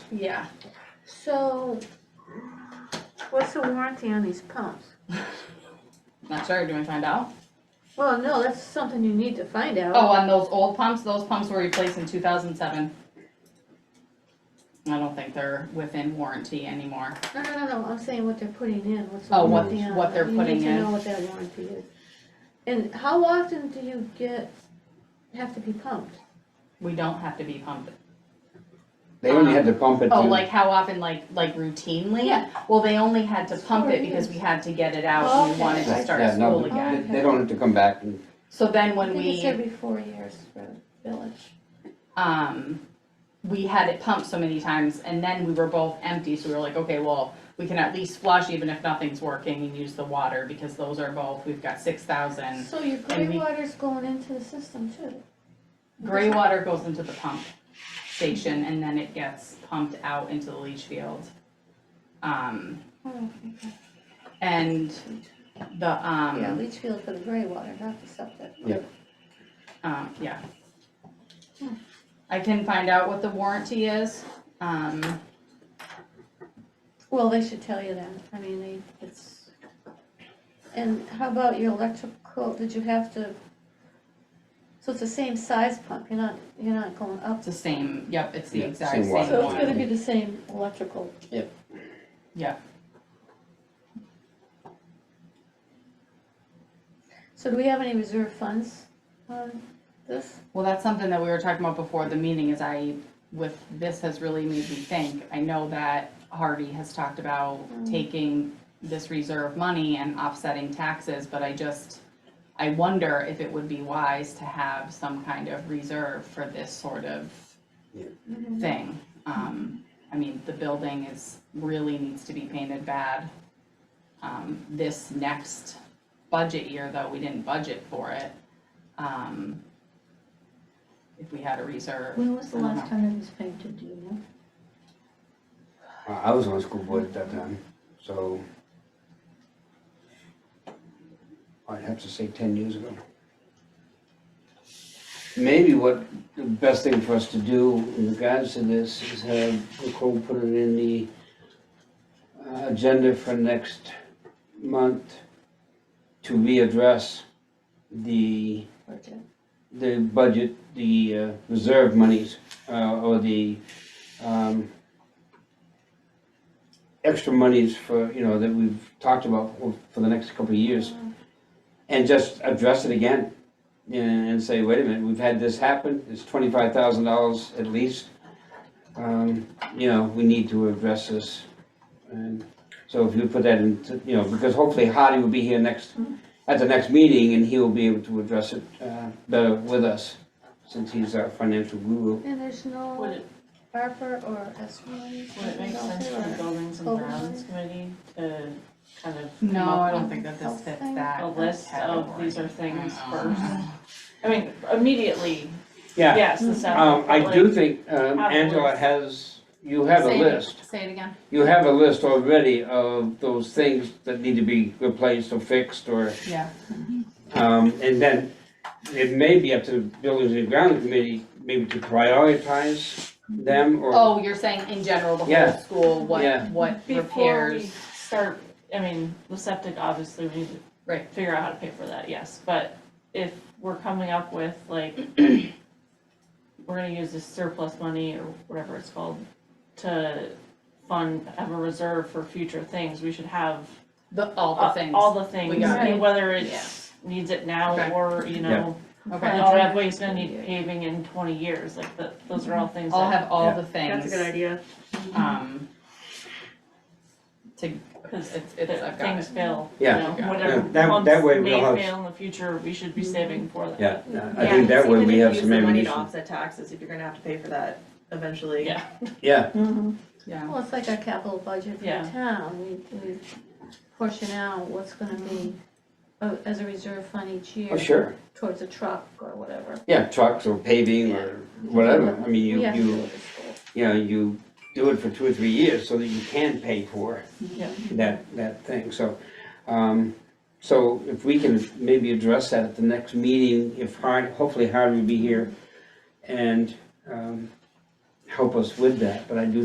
Yeah. So, what's the warranty on these pumps? Not sure, do I find out? Well, no, that's something you need to find out. Oh, on those old pumps, those pumps were replaced in two thousand seven. I don't think they're within warranty anymore. No, no, no, no, I'm saying what they're putting in, what's the Oh, what- warranty on. what they're putting You need in. to know what that warranty is. And how often do you get, have to be pumped? We don't have to be pumped. They only had to pump it Oh, to- like how often, like, like routinely? Yeah. Well, they only had to pump it Sure, because we yes. had to get it out and Okay. we wanted to Yeah, start yeah, no, school they- again. They don't have to come back and, So then I when think it's we, every four years for village. um, we had it pumped so many times and then we were both empty, so we were like, okay, well, we can at least flush even if nothing's working and use the water because those are both, we've got six thousand. So your gray we- water's going into the system too? Gray water goes into the pump station and then it gets pumped out into the leach field. Um, Oh, okay. and the, um. Yeah, leach field for the gray water, not the septic. Um, yeah. Hmm. I can find out what the warranty is, um, Well, they should tell you that, I mean, they, it's, and how about your electrical, did you have to? So it's the same size pump, you're not, you're not going up, it's the same, yep, it's the Yeah, exact same same water. so it's gonna one, be the same electrical. yep. So do we have any reserve funds on this? Well, that's something that we were talking about before the meeting is I, with, this has really made me think. I know that Harvey has talked about taking this reserve money and offsetting taxes, but I just, I wonder if it would be wise to have some kind of reserve for this sort of thing. Um, I mean, the building is, really needs to be painted bad. Um, this next budget year, though, we didn't budget for it. Um, if we had a reserve, When was the last time it was painted, do you know? I uh, I was on school board at that time, so. I'd have to say ten years ago. Maybe what the best thing for us to do in regards to this is have Nicole put it in the uh, agenda for next month to readdress the Budget. the budget, the uh, reserve monies, uh, or the um, extra monies for, you know, that we've talked about for the next couple of years, and just address it again, and and say, wait a minute, we've had this happen, it's twenty-five thousand dollars at least. Um, You know, we need to address this, and so if you put that into, you know, because hopefully Hardy will be here next, at the next meeting, and he will be able to address it uh, better with us, since he's our financial guru. And there's Would no it, ARPA or S one? would it make sense for the buildings and grounds committee to kind of? come no, up I don't with think that this fits Health that. A list of category. these are things I don't know. first, I mean, immediately, Yeah, yes, the septic, Um, I but do like- think, um, have a Angela list. has, you have a Say it- list, Say it again, you have a list already of those things that need to be replaced or fixed or, yeah, um, and then it may be up to the Buildings and Ground Committee, maybe to prioritize them or, oh, you're saying in general, the whole Yeah. school, Yeah. what, what Before we repairs, start, I mean, the septic, obviously, we need to. Right. Figure out how to pay for that, yes, but if we're coming up with like, we're gonna use this surplus money or whatever it's called to fund, have a reserve for future things, we should have the, all uh, the things, all the things, We got and it. whether it's needs it now Okay. or, you Yeah. know, oh, okay? the Right. driveway's gonna need paving in twenty years, like, the, those are all things I'll that, have all Yeah. the things. That's a good idea. Um, to, cause it's, it's, that I've got things it. fail, you Yeah. know, Yeah. whatever Yeah, that- ones that way we'll have- Mm-hmm. May fail in the future, we should be saving for that. yeah, uh, I think that way we have some Use the money to ammunition. offset taxes if you're gonna have to pay for that eventually. Yeah. Yeah, Mm-hmm. Yeah, Well, it's like our capital budget for Yeah. the town, we, we portion out what's gonna be uh, as a reserve fund each year. oh, sure, Towards a truck or whatever. yeah, trucks or paving or whatever, I mean, We you, have to do you, it as well. you know, you do it for two or three years so that you can pay for it. Yeah. that, that thing, so, um, so if we can maybe address that at the next meeting, if Hard, hopefully Hard will be here and, um, help us with that, but I do